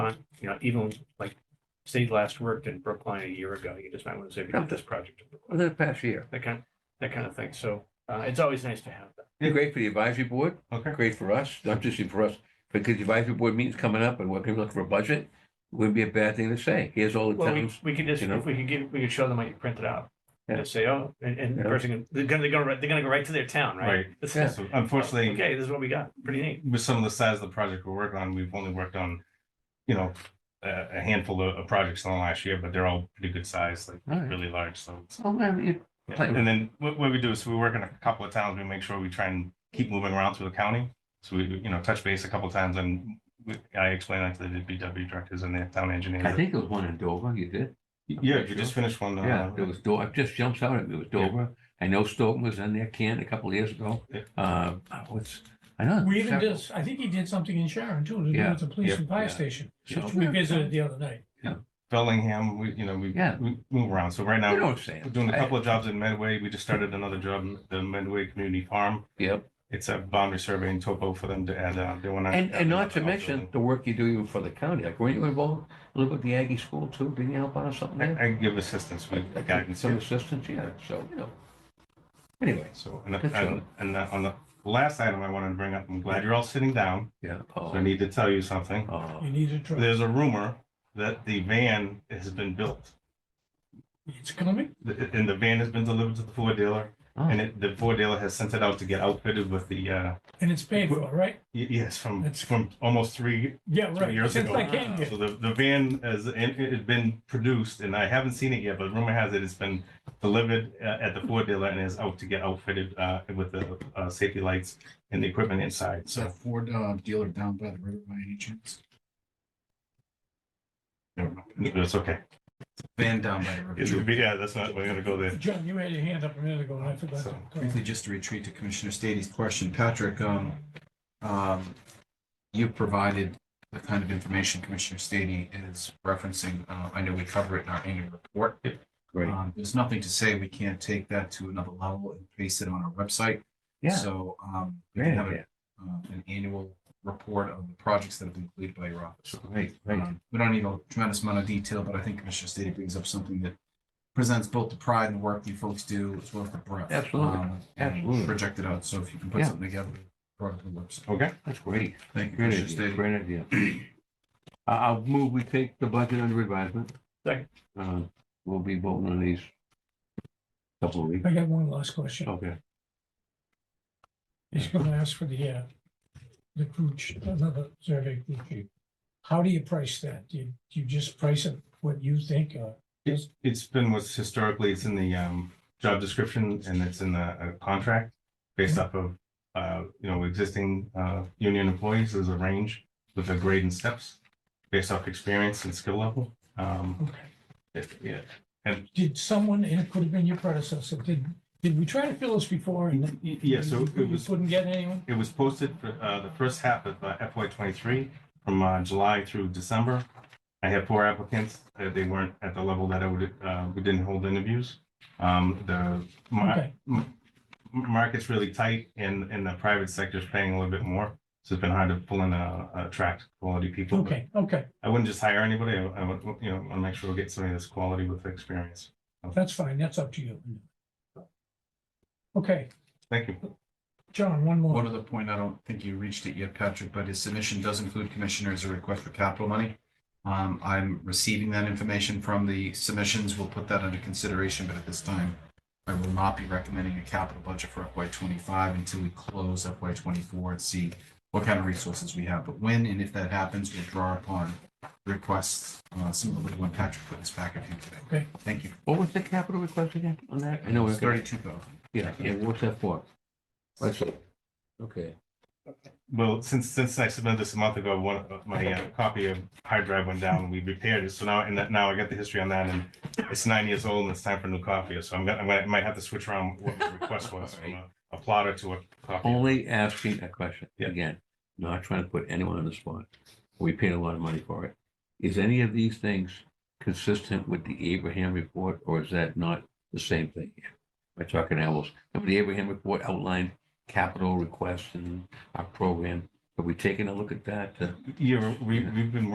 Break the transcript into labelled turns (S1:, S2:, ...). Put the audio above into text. S1: want, you know, even like, say, you last worked in Brookline a year ago, you just might want to say, we got this project. in Brookline,"
S2: over the past year.
S1: That kind, that kind of thing. So uh, it's always nice to have that.
S2: They're great for the advisory board,
S1: Okay.
S2: great for us, not just for us, because the advisory board meeting's coming up and we're gonna look for a budget. Wouldn't be a bad thing to say. Here's all the
S1: Well, we,
S2: towns.
S1: we could just,
S2: you know?
S1: if we could give, we could show them what you printed out.
S2: Yeah.
S1: Just say, oh, and, and the
S2: Yeah.
S1: person, can- they're gonna, they're gonna, they're gonna go right to their town, right?
S3: Right.
S1: This
S2: Yeah.
S1: is-
S3: So Unfortunately,
S1: Okay, this is what we got. Pretty neat.
S3: with some of the size of the project we're working on, we've only worked on, you know, a, a handful of, of projects in the last year, but they're all pretty good size, like
S2: All right.
S3: really large, so. it's-
S2: Oh, man, you- Plan.
S3: And then what, what we do is we work in a couple of towns, we make sure we try and keep moving around through the county. So we, you know, touch base a couple of times and we- I explain that to the DPW directors and the town
S2: I
S3: engineers.
S2: think it was one in Dover, you did.
S3: Yeah, we just finished one. uh,
S2: Yeah, it was Dover, it just jumps out at me, it was
S3: Yeah.
S2: Dover. I know Stoughton was in there, Ken, a couple of years ago.
S3: Yeah.
S2: Uh, what's, I know.
S4: We even
S2: several,
S4: did, I think he did something in Sharon too, to do
S2: Yeah,
S4: with the police and
S2: yeah,
S4: fire
S2: yeah.
S4: station,
S2: you know.
S4: which we visited the other night.
S3: Bellingham, we, you know, we,
S2: Yeah.
S3: we move around. So right now,
S2: You know what
S3: we're
S2: I'm saying?
S3: doing a couple of jobs in Medway. We just started another job, in the Medway Community Farm.
S2: Yep,
S3: It's a boundary survey and topo for them to add, uh, they want to.
S2: and, and not to mention the work you do even for the county, like, weren't you involved a little bit with the Aggie School too? Didn't you help out or something
S3: I,
S2: there?
S3: I give assistance with guidance.
S2: Some assistance, yeah, so, you know. Anyway,
S3: So, and,
S2: Good
S3: and,
S2: job.
S3: and uh, on the last item I wanted to bring up, I'm glad you're all sitting down.
S2: yeah.
S3: So I
S2: oh,
S3: need to tell you something.
S2: oh.
S4: You need a truck.
S3: There's a rumor that the van has been built.
S4: It's coming.
S3: The- And the van has been delivered to the Ford dealer and
S2: Oh,
S3: it, the Ford dealer has sent it out to get outfitted with the, uh,
S4: and it's paid for, right?
S3: y- yes, from,
S4: That's-
S3: from almost three,
S4: Yeah,
S3: three
S4: right.
S3: years
S4: Since I
S3: ago.
S4: came here.
S3: So the, the van has, it it had been produced and I haven't seen it yet, but rumor has it it's been delivered uh, at the Ford dealer and is out to get outfitted, uh, with the, uh, safety lights and the equipment inside.
S5: Is that
S3: So
S5: Ford uh, dealer down by the river by any chance? Never mind.
S3: it's okay.
S5: Van down by the
S3: It's gonna
S5: river.
S3: be, yeah, that's not, we're gonna go there.
S4: John, you had your hand up a minute ago and I forgot.
S3: So-
S4: to-
S5: Briefly, just to retreat to Commissioner Stady's question, Patrick, um, um, you provided the kind of information Commissioner Stady is referencing. Uh, I know we cover it in our annual report.
S2: great,
S5: Um, there's nothing to say we can't take that to another level and paste it on our website.
S2: yeah.
S5: So, um, we
S2: Great
S5: can have
S2: idea.
S5: a- uh, an annual report of the projects that have been completed by your office.
S2: Right, right.
S5: Um, We don't need a tremendous amount of detail, but I think Commissioner Stady brings up something that presents both the pride and work you folks do as well as the breadth.
S2: Absolutely,
S5: um,
S2: absolutely.
S5: And project it out. So if you can put
S2: Yeah.
S5: something together, brought to the website.
S3: Okay,
S2: That's great.
S5: Thank you,
S2: Great
S5: Commissioner
S2: idea.
S5: Stady.
S2: Great idea. I- I'll move, we take the budget under advisement.
S1: Second.
S2: Uh, We'll be voting on these couple of weeks.
S4: I got one last
S3: Oh,
S4: question.
S2: Okay.
S4: He's gonna ask for the, uh, the crew, ch- another survey crew chief. How do you price that? Do you, do you just price it what you think or?
S3: it's, it's been what's historically, it's in the, um, job description and it's in the, uh, contract based off of, uh, you know, existing, uh, union employees, there's a range with a grade and steps based off experience and skill level. Um,
S4: Okay.
S3: if, yeah,
S4: Did someone, and it could have been your predecessor, did, did we try to fill this before and?
S3: Y- yeah, so
S4: you
S3: it was,
S4: Couldn't get anyone?
S3: it was posted for, uh, the first half of uh, FY twenty-three from, uh, July through December. I had four applicants, uh, they weren't at the level that I would, uh, we didn't hold interviews. Um, the, my,
S4: Okay,
S3: market's really tight and, and the private sector's paying a little bit more. So it's been hard to pull in, uh, attract quality people. But
S4: okay, okay.
S3: I wouldn't just hire anybody. I, I would, you know, I'll make sure we get somebody that's quality with experience.
S4: That's fine, that's up to you. Okay,
S3: Thank you.
S4: John, one
S5: One
S4: more.
S5: other point, I don't think you reached it yet, Patrick, but his submission does include commissioners a request for capital money. Um, I'm receiving that information from the submissions. We'll put that under consideration, but at this time, I will not be recommending a capital budget for FY twenty-five until we close FY twenty-four and see what kind of resources we have. But when and if that happens, we'll draw upon requests, uh, similar to the one Patrick put in his packet here today.
S4: Okay.
S5: Thank you.
S2: What was the capital request again on that? I know, we're gonna-
S5: Thirty-two thousand.
S2: yeah, yeah, what's that for? Let's see. Okay.
S3: Well, since, since I submitted this a month ago, one, of my uh, copy of hard drive went down and we repaired it. So now, and that, now I got the history on that and it's nine years old and it's time for a new copy. So I'm gonna, I might- might have to switch around what the request was from a- a plotter to a copy.
S2: Only asking a question
S3: Yeah.
S2: again, not trying to put anyone on the spot. We paid a lot of money for it. Is any of these things consistent with the Abraham report or is that not the same thing? We're talking apples. Remember the Abraham report outlined capital requests and our program. Have we taken a look at that? Uh,
S3: Yeah, we, we've been